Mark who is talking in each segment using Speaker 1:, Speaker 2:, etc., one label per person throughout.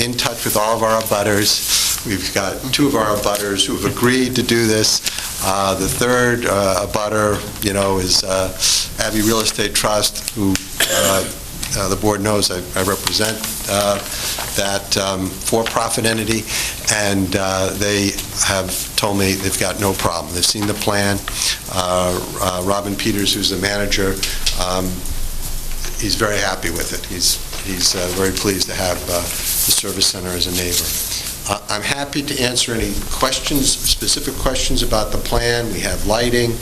Speaker 1: in touch with all of our abutters. We've got two of our abutters who've agreed to do this. Uh, The third uh, abutter, you know, is uh, Abbey Real Estate Trust, who uh, uh, the board knows I I represent uh, that um, for-profit entity, and uh, they have told me they've got no problem. They've seen the plan. Uh, uh, Robin Peters, who's the manager, um, he's very happy with it. He's, he's uh, very pleased to have uh, the service center as a neighbor. Uh, I'm happy to answer any questions, specific questions about the plan. We have lighting.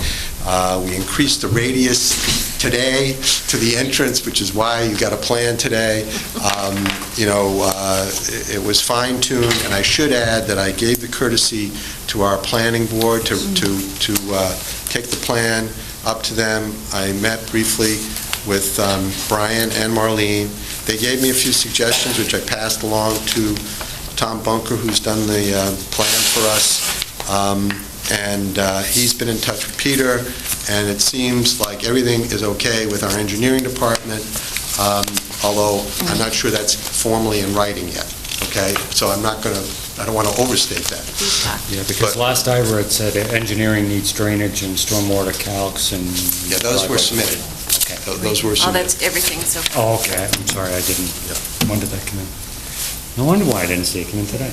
Speaker 1: Uh, We increased the radius today to the entrance, which is why you got a plan today. Um, You know, uh, it- it was fine-tuned, and I should add that I gave the courtesy to our planning board to, to, to uh, take the plan up to them. I met briefly with um, Brian and Marlene. They gave me a few suggestions, which I passed along to Tom Bunker, who's done the uh, plan for us. Um, And uh, he's been in touch with Peter, and it seems like everything is okay with our engineering department, um, although I'm not sure that's formally in writing yet, okay? So I'm not going to, I don't want to overstate that.
Speaker 2: Yeah, because last I read said engineering needs drainage and stormwater calcs and...
Speaker 1: Yeah, those were submitted.
Speaker 2: Okay.
Speaker 1: Tho- Those
Speaker 3: Oh,
Speaker 1: were submitted.
Speaker 3: that's everything, so
Speaker 2: Oh, okay, I'm sorry, I didn't,
Speaker 1: Yeah.
Speaker 2: when did that come in? No wonder why I didn't see it come in today.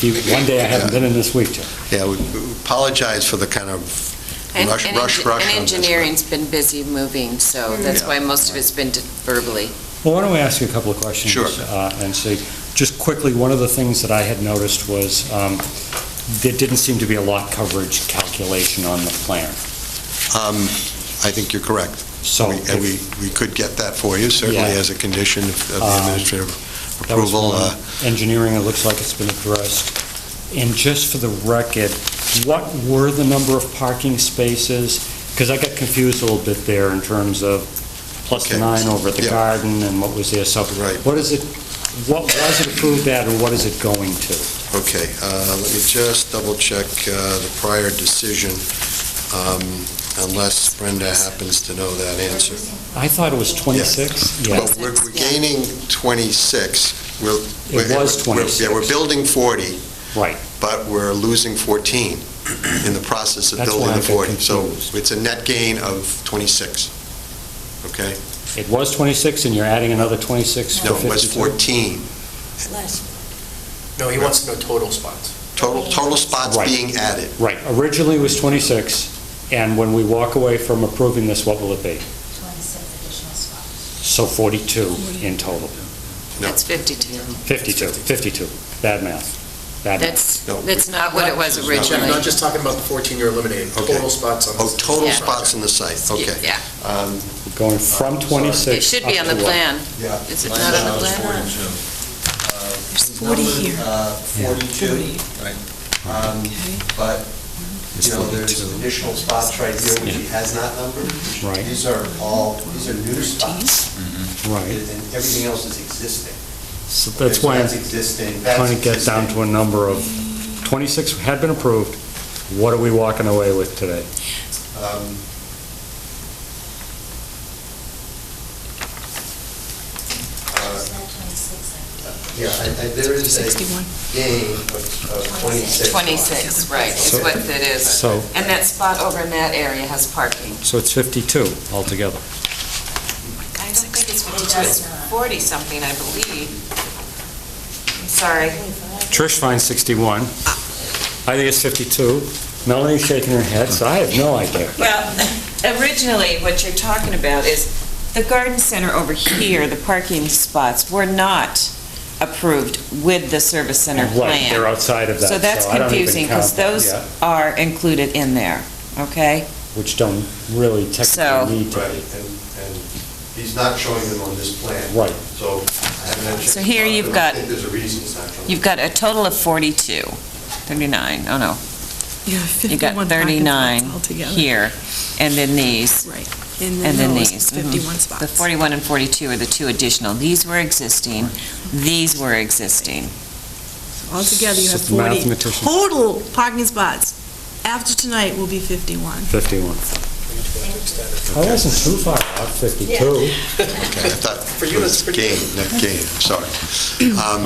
Speaker 2: You- One day I haven't been in this week, Joe.
Speaker 1: Yeah, we we apologize for the kind of
Speaker 3: And-
Speaker 1: rush,
Speaker 3: and
Speaker 1: rush,
Speaker 3: engi-
Speaker 1: rush.
Speaker 3: And
Speaker 1: on this.
Speaker 3: engineering's been busy moving,
Speaker 2: Hmm.
Speaker 3: so that's
Speaker 1: Yeah.
Speaker 3: why most of it's been d- verbally.
Speaker 2: Well, why don't we ask you a couple of questions?
Speaker 1: Sure.
Speaker 2: uh, And see, just quickly, one of the things that I had noticed was um, there didn't seem to be a lot coverage calculation on the plan.
Speaker 1: Um, I think you're correct.
Speaker 2: So
Speaker 1: We- And we, we could get that for you, certainly
Speaker 2: Yeah.
Speaker 1: as a condition of of the
Speaker 2: Um,
Speaker 1: administrative
Speaker 2: That was
Speaker 1: approval.
Speaker 2: one.
Speaker 1: Uh,
Speaker 2: Engineering, it looks like it's been addressed. And just for the record, what were the number of parking spaces? Because I got confused a little bit there in terms of plus the
Speaker 1: Okay.
Speaker 2: nine over at the
Speaker 1: Yeah.
Speaker 2: garden and what was there, so.
Speaker 1: Right.
Speaker 2: What is it, what was it approved at or what is it going to?
Speaker 1: Okay, uh, let me just double-check the prior decision, um, unless Brenda happens to know that answer.
Speaker 2: I thought it was 26?
Speaker 1: Well,
Speaker 2: Yeah,
Speaker 1: we're we're
Speaker 3: 26, yeah.
Speaker 1: gaining 26. We're- we're-
Speaker 2: It was
Speaker 1: we're-
Speaker 2: 26.
Speaker 1: Yeah, we're building 40.
Speaker 2: Right.
Speaker 1: But we're losing 14 in the process of
Speaker 2: That's
Speaker 1: building
Speaker 2: why
Speaker 1: the
Speaker 2: I got
Speaker 1: 40. So
Speaker 2: confused.
Speaker 1: it's a net gain of 26, okay?
Speaker 2: It was 26 and you're adding another 26 for
Speaker 1: No, it
Speaker 2: 52?
Speaker 1: was 14.
Speaker 4: No, he wants to know total spots.
Speaker 1: Total, total spots
Speaker 2: Right.
Speaker 1: being added.
Speaker 2: Right, originally it was 26, and when we walk away from approving this, what will it be?
Speaker 5: 26 additional spots.
Speaker 2: So 42 in total.
Speaker 1: No.
Speaker 3: That's 52.
Speaker 2: 52, 52, bad math, bad math.
Speaker 3: That's,
Speaker 1: No.
Speaker 3: that's not Uh, what it was
Speaker 1: No.
Speaker 4: So you're
Speaker 3: originally.
Speaker 4: not just talking about the 14 you're eliminating,
Speaker 1: Okay.
Speaker 4: total spots on the...
Speaker 1: Oh, total
Speaker 3: Yeah.
Speaker 1: spots on the site, okay.
Speaker 3: Yeah,
Speaker 1: Um,
Speaker 2: We're Going from
Speaker 3: it
Speaker 2: 26
Speaker 3: should
Speaker 2: up
Speaker 3: be on the
Speaker 2: to what?
Speaker 3: plan.
Speaker 1: Yeah.
Speaker 3: Is it not on the plan?
Speaker 1: There's
Speaker 6: 40 here.
Speaker 1: Um, But,
Speaker 2: It's
Speaker 1: you know, there's
Speaker 2: 42.
Speaker 1: additional spots right here, which he has not numbered.
Speaker 2: Right.
Speaker 1: These are all, these are new spots.
Speaker 2: Right,
Speaker 1: And everything else is existing.
Speaker 2: so
Speaker 1: Okay,
Speaker 2: that's
Speaker 1: so
Speaker 2: why I'm
Speaker 1: That's existing. that's
Speaker 2: trying to get down
Speaker 1: existing.
Speaker 2: to a number of, 26 had been approved, what are we walking away with today?
Speaker 1: Um, uh,
Speaker 5: There's no 26
Speaker 1: Yeah, I- I- there is a gain of of 26.
Speaker 3: 26, right, is
Speaker 2: So-
Speaker 3: what it is.
Speaker 2: So,
Speaker 3: And that spot over in that area has parking.
Speaker 2: so it's 52 altogether.
Speaker 3: I don't think it's 52, it's 40-something, I believe. I'm sorry.
Speaker 2: Trish finds 61. I think it's 52. Melanie's shaking her head, so I have no idea.
Speaker 7: Well, originally, what you're talking about is the garden center over here, the parking spots were not approved with the service center
Speaker 2: Right, they're
Speaker 7: plan.
Speaker 2: outside of that,
Speaker 7: So that's
Speaker 2: so I don't even
Speaker 7: confusing, because
Speaker 2: count them,
Speaker 7: those
Speaker 2: yeah.
Speaker 7: are included in there, okay?
Speaker 2: Which don't really
Speaker 7: So-
Speaker 2: technically need to
Speaker 1: Right,
Speaker 2: be.
Speaker 1: and, and he's not showing them on this plan.
Speaker 2: Right.
Speaker 1: So I haven't actually.
Speaker 7: So here you've
Speaker 1: I think
Speaker 7: got-
Speaker 1: there's a reason it's not showing.
Speaker 7: You've got a total of 42, 39, oh no,
Speaker 6: Yeah,
Speaker 7: you got
Speaker 6: 51 parking
Speaker 7: 39
Speaker 6: spots altogether.
Speaker 7: here, and then these,
Speaker 6: Right.
Speaker 7: and then
Speaker 6: those
Speaker 7: these. mhm.
Speaker 6: 51
Speaker 7: The
Speaker 6: spots.
Speaker 7: 41 and 42 are the two additional. These were existing, these were existing.
Speaker 6: Altogether, you have
Speaker 2: So the
Speaker 6: 40.
Speaker 2: mathematician-
Speaker 6: Total parking spots after tonight will be 51.
Speaker 2: 51. I wasn't too far off, 52.
Speaker 1: Okay, I thought
Speaker 4: For you,
Speaker 1: it was
Speaker 4: it's pretty-
Speaker 1: gain, not gain, I'm sorry. Um,